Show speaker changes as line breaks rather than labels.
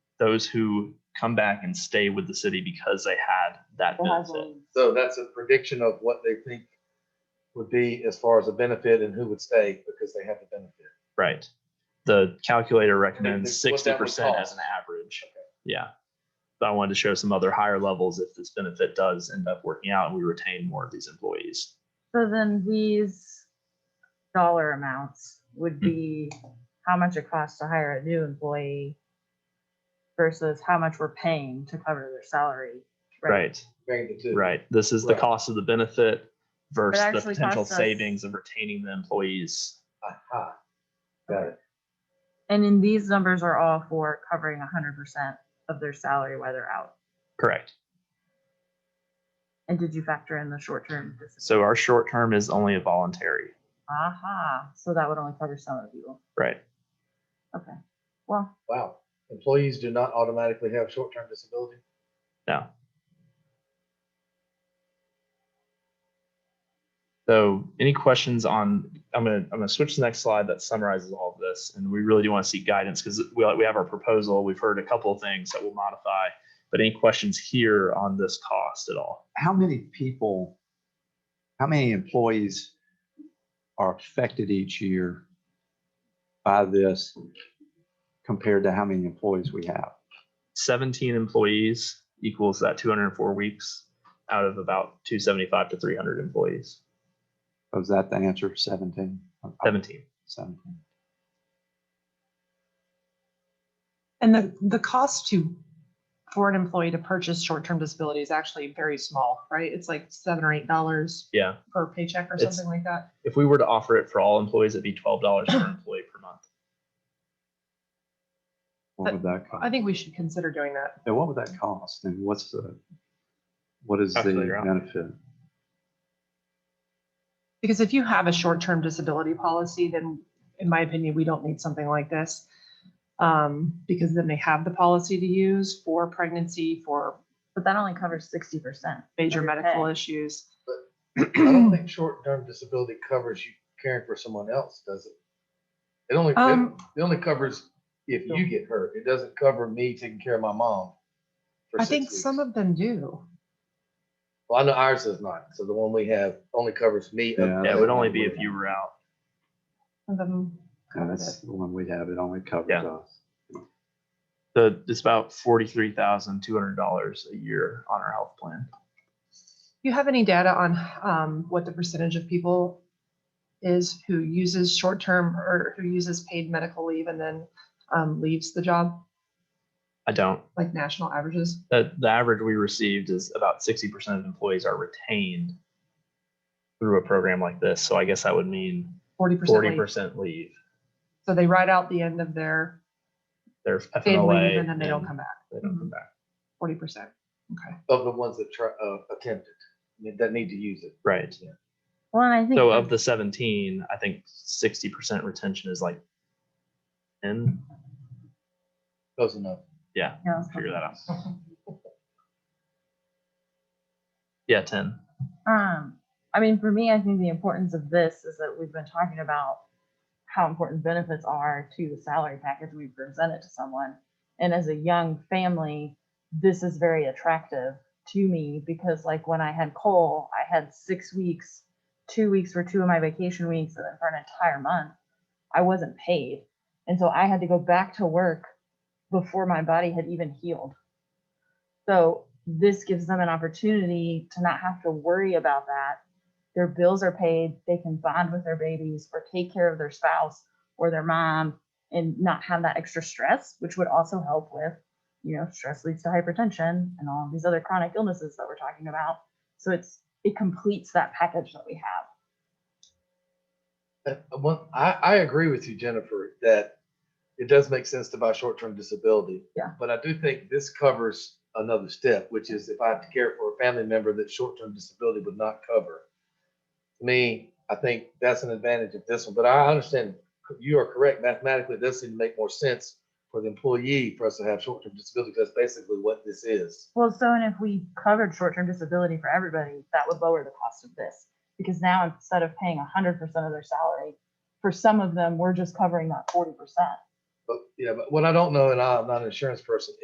those who come back and stay with the city because they had that
That has
benefit.
a-
So that's a prediction of what they think would be as far as a benefit and who would stay because they have the benefit.
Right. The calculator
what
recommends
that would
sixty percent as
cost.
an average. Yeah. But I wanted to show some other higher levels if this benefit does end up working out and we retain more of these employees.
So then these dollar amounts would be how much it costs to hire a new employee versus how much we're paying to cover their salary.
Right,
Comparing the two.
right. This is the
Right.
cost of the benefit versus the
actually
potential
costs us-
savings of retaining the employees.
Aha. Got it.
And then these numbers are all for covering hundred percent of their salary while they're out.
Correct.
And did you factor in the short-term? disability?
So our short term is only a voluntary,
Aha, so that would only cover some of the people.
right?
Okay, well,
Wow. Employees do not automatically have short-term disability.
No. So any questions on, I'm gonna, I'm gonna switch to the next slide that summarizes all of this, and we really do want to seek guidance, because we, we have our proposal, we've heard a couple of things that we'll modify. But any questions here on this cost at all?
how many people, how many employees are affected each year by this compared to how many employees we have?
Seventeen employees equals that two hundred and four weeks out of about two seventy-five to three hundred employees,
Was that the answer? Seventeen?
seventeen.
Seventeen.
And the, the cost to, for an employee to purchase short-term disability is actually very small, right? It's like seven or eight dollars
Yeah,
per paycheck or
It's-
something like that.
if we were to offer it for all employees, it'd be twelve dollars per employee per month.
What would that, cost?
I think we should consider doing that.
and what would that cost? And what's the, what is the
Calculator out.
benefit?
Because if you have a short-term disability policy, then in my opinion, we don't need something like this. Um, because then they have the policy to use for pregnancy, for
but that only covers sixty percent.
major
Okay.
medical issues.
I don't think short-term disability covers you caring for someone else, does it? It only, it
Um,
it only covers if you get hurt. It doesn't cover me taking care of my mom. for
I
six
think some
weeks.
of them do.
Well, I know ours does not. So the one we have only covers me.
Yeah, I
Yeah, it would only be if you were out.
Some of them
And
covered
that's
it.
the one we have. It only covers
Yeah.
us.
The, it's about forty-three thousand two hundred dollars a year on our health plan.
You have any data on um, what the percentage of people is who uses short-term or who uses paid medical leave and then um, leaves the job,
I don't.
like national averages?
The, the average we received is about sixty percent of employees are retained through a program like this. So I guess that would mean
Forty percent.
forty percent leave.
So they ride out the end of their
They're
paid
FMLA.
leave and then they don't come back. Mm-hmm.
They don't come back.
Forty percent. Okay.
Of the ones that try, uh, attempted, I mean, that need to use it.
Right.
Well, and I think.
So
that-
of the seventeen, I think sixty percent retention is like ten.
Close enough.
Yeah,
Yeah, that's
figure
not-
that out. Yeah, ten.
Um, I mean, for me, I think the importance of this is that we've been talking about how important benefits are to the salary package we present it to someone. And as a young family, this is very attractive to me because like when I had Cole, I had six weeks, two weeks for two of my vacation weeks, and then for an entire month, I wasn't paid. And so I had to go back to work before my body had even healed. So this gives them an opportunity to not have to worry about that. Their bills are paid, they can bond with their babies or take care of their spouse or their mom and not have that extra stress, which would also help with, you know, stress leads to hypertension and all of these other chronic illnesses that we're talking about. So it's it completes that package that we have.
Uh, Well, I, I agree with you, Jennifer, that it does make sense to buy short-term disability.
Yeah.
But I do think this covers another step, which is if I have to care for a family member that short-term disability would not cover. To me, I think that's an advantage of this one, but I understand you are correct. Mathematically, it does seem to make more sense for the employee for us to have short-term disability. 'cause That's basically what this is.
Well, so and if we covered short-term disability for everybody, that would lower the cost of this. Because now instead of paying hundred percent of their salary, for some of them, we're just covering that forty percent.
But, yeah, but what I don't know, and I'm not an insurance person,